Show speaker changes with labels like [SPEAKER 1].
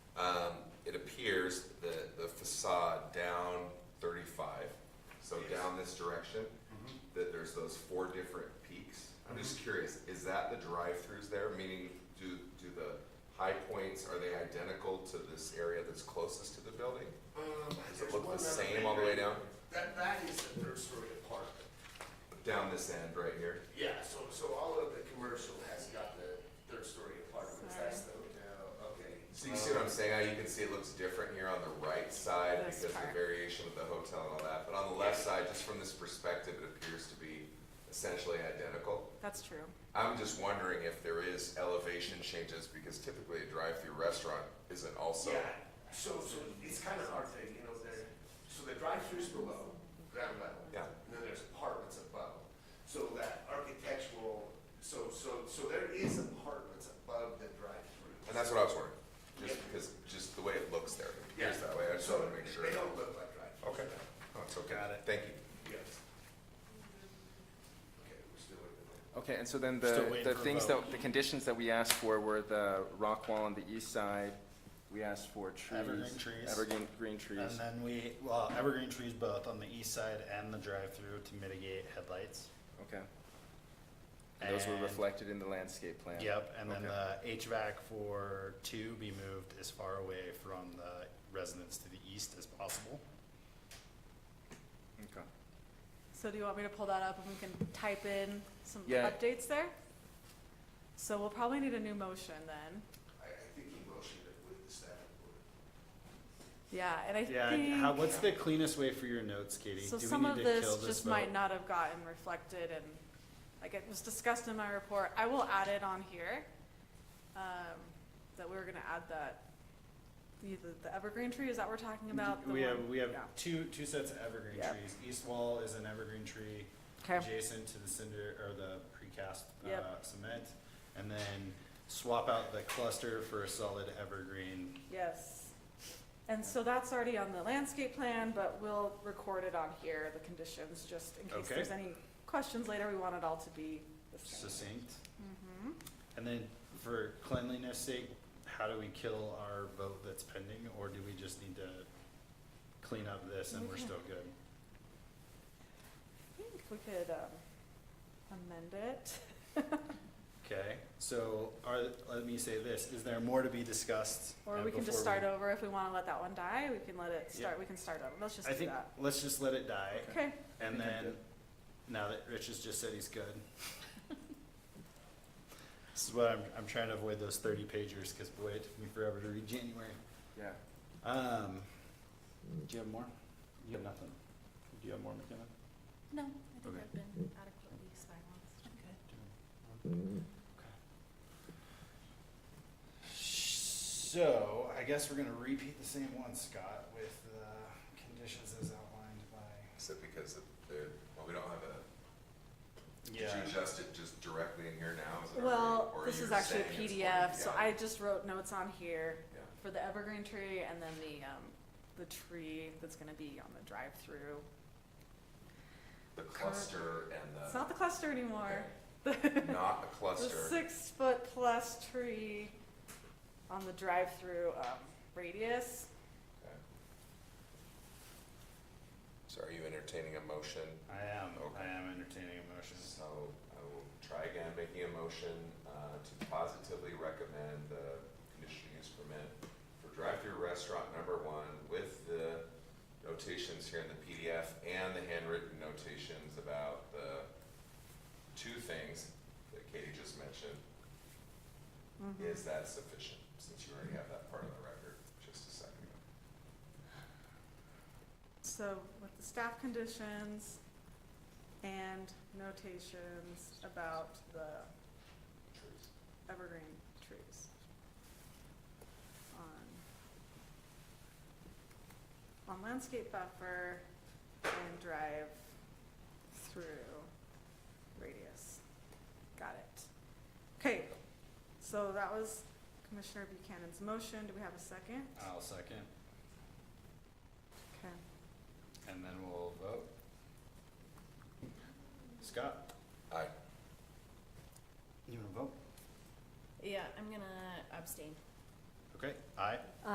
[SPEAKER 1] Um, down thirty-five, so
[SPEAKER 2] Yes.
[SPEAKER 1] down this direction, that there's those four different peaks. I'm
[SPEAKER 2] Mm-hmm.
[SPEAKER 1] just curious, is that the drive-throughs there, meaning do, do the high points, are they identical to this area that's closest to the building?
[SPEAKER 2] Um,
[SPEAKER 1] Does
[SPEAKER 2] there's
[SPEAKER 1] it look
[SPEAKER 2] one
[SPEAKER 1] the
[SPEAKER 2] other
[SPEAKER 1] same
[SPEAKER 2] thing
[SPEAKER 1] all the way
[SPEAKER 2] that-
[SPEAKER 1] down?
[SPEAKER 2] That, that is the nursery apartment.
[SPEAKER 1] Down this end right here?
[SPEAKER 2] Yeah, so, so all of the commercial has got the third story apartments, that's the hotel, okay. Um,
[SPEAKER 1] So you see what I'm saying, how you can see it looks different here on the right side
[SPEAKER 3] This
[SPEAKER 1] because of the
[SPEAKER 3] part.
[SPEAKER 1] variation of the hotel and all that, but on the left side, just from this perspective, it appears to be essentially identical.
[SPEAKER 3] That's true.
[SPEAKER 1] I'm just wondering if there is elevation changes because typically a drive-through restaurant isn't also.
[SPEAKER 2] Yeah, so, so it's kind of hard to, you know, there, so the drive-through's below, ground level.
[SPEAKER 1] Yeah.
[SPEAKER 2] And then there's apartments above. So that architectural, so, so, so there is apartments above the drive-through.
[SPEAKER 1] And that's what I was wondering, just
[SPEAKER 2] Yeah.
[SPEAKER 1] because, just the way it looks there, it
[SPEAKER 2] Yeah.
[SPEAKER 1] appears that way, I just
[SPEAKER 2] So
[SPEAKER 1] wanted to make sure.
[SPEAKER 2] They don't look like drive-throughs.
[SPEAKER 1] Okay. Oh, it's okay, thank you.
[SPEAKER 2] Yes. Okay, we're still waiting.
[SPEAKER 4] Okay, and so then
[SPEAKER 5] Still
[SPEAKER 4] the,
[SPEAKER 5] waiting
[SPEAKER 4] the
[SPEAKER 5] for a
[SPEAKER 4] things
[SPEAKER 5] vote.
[SPEAKER 4] that, the conditions that we asked for were the rock wall on the east side. We asked for trees.
[SPEAKER 5] Evergreen trees.
[SPEAKER 4] Evergreen, green
[SPEAKER 5] And
[SPEAKER 4] trees.
[SPEAKER 5] then we, well, evergreen trees both on the east side and the drive-through to mitigate headlights.
[SPEAKER 4] Okay. And those were
[SPEAKER 5] And-
[SPEAKER 4] reflected in the landscape plan.
[SPEAKER 5] Yep, and then
[SPEAKER 4] Okay.
[SPEAKER 5] the HVAC for two be moved as far away from the residents to the east as possible.
[SPEAKER 4] Okay.
[SPEAKER 3] So do you want me to pull that up and we can type in some
[SPEAKER 4] Yeah.
[SPEAKER 3] updates there? So we'll probably need a new motion then.
[SPEAKER 2] I, I think he motioned it with the staff report.
[SPEAKER 3] Yeah, and I
[SPEAKER 5] Yeah, and how,
[SPEAKER 3] think,
[SPEAKER 5] what's the cleanest way for your notes, Katie?
[SPEAKER 3] so
[SPEAKER 5] Do we
[SPEAKER 3] some
[SPEAKER 5] need
[SPEAKER 3] of
[SPEAKER 5] to kill
[SPEAKER 3] this just
[SPEAKER 5] vote?
[SPEAKER 3] might not have gotten reflected and, like, it was discussed in my report. I will add it on here, um, that we were gonna add that, the, the evergreen tree, is that what we're talking about? The
[SPEAKER 5] We have,
[SPEAKER 3] one-
[SPEAKER 5] we have
[SPEAKER 3] yeah.
[SPEAKER 5] two, two sets of evergreen
[SPEAKER 3] Yeah.
[SPEAKER 5] trees. East wall is an evergreen tree.
[SPEAKER 3] Okay,
[SPEAKER 5] adjacent to the cinder or the precast
[SPEAKER 3] Yep.
[SPEAKER 5] uh, cement, and then swap out the cluster for a solid evergreen.
[SPEAKER 3] yes. And so that's already on the landscape plan, but we'll record it on here, the conditions, just in case
[SPEAKER 5] Okay.
[SPEAKER 3] there's any questions later, we want it all to be the same.
[SPEAKER 5] Succinct.
[SPEAKER 3] Mhm.
[SPEAKER 5] And then for cleanliness sake, how do we kill our vote that's pending, or do we just need to clean up this and we're
[SPEAKER 3] Okay.
[SPEAKER 5] still good?
[SPEAKER 3] I think we could, um, amend it.
[SPEAKER 5] Okay, so are, let me say this, is there more to be discussed?
[SPEAKER 3] Or
[SPEAKER 5] uh,
[SPEAKER 3] we can just
[SPEAKER 5] before
[SPEAKER 3] start over if we wanna let that one die, we can let it start,
[SPEAKER 5] Yeah.
[SPEAKER 3] we can start over, let's just
[SPEAKER 5] I
[SPEAKER 3] do
[SPEAKER 5] think,
[SPEAKER 3] that.
[SPEAKER 5] let's just let it die,
[SPEAKER 3] Okay,
[SPEAKER 5] and
[SPEAKER 4] think I'm
[SPEAKER 5] then, now that Rich has just said he's good. This is what I'm, I'm trying to avoid those thirty pagers, cause boy, it took me forever to read January.
[SPEAKER 4] Yeah.
[SPEAKER 5] Um, do you have more? You have nothing? Do you have more, McKenna?
[SPEAKER 6] No, I think
[SPEAKER 5] Okay.
[SPEAKER 6] I've been adequately silenced. Okay.
[SPEAKER 5] So, I guess we're gonna repeat the same one, Scott, with the conditions as outlined by.
[SPEAKER 1] Is it because of the, well, we don't have a, did you adjust it just directly in here now? Is it
[SPEAKER 3] well,
[SPEAKER 1] already- or
[SPEAKER 3] this
[SPEAKER 1] you're
[SPEAKER 3] is actually a
[SPEAKER 1] saying it's
[SPEAKER 3] PDF, so I
[SPEAKER 1] already-
[SPEAKER 3] just wrote notes on here
[SPEAKER 1] yeah, yeah.
[SPEAKER 3] for the evergreen tree and then the, um, the tree that's gonna be on the drive-through.
[SPEAKER 1] The cluster and
[SPEAKER 3] It's
[SPEAKER 1] the,
[SPEAKER 3] not the cluster anymore.
[SPEAKER 1] not a
[SPEAKER 3] The
[SPEAKER 1] cluster,
[SPEAKER 3] six-foot-plus tree on the drive-through, um, radius.
[SPEAKER 1] Okay. So are you entertaining a motion?
[SPEAKER 5] I am,
[SPEAKER 1] Okay.
[SPEAKER 5] I am entertaining a motion.
[SPEAKER 1] So I will try again, making a motion uh, to positively recommend the conditional use permit for drive-through restaurant number one with the notations here in the PDF and the handwritten notations about the two things that Katie just mentioned. Is that sufficient, since you already have that part of the record just a second ago?
[SPEAKER 3] So with the staff conditions and notations about the
[SPEAKER 1] Trees.
[SPEAKER 3] evergreen trees. On, on landscape buffer and drive through radius. Got it. Okay, so that was Commissioner Buchanan's motion. Do we have a second?
[SPEAKER 5] I'll second,
[SPEAKER 3] Okay.
[SPEAKER 5] and then we'll vote. Scott?
[SPEAKER 1] Aye.
[SPEAKER 5] You wanna vote?
[SPEAKER 6] Yeah, I'm gonna abstain.
[SPEAKER 5] Okay, aye.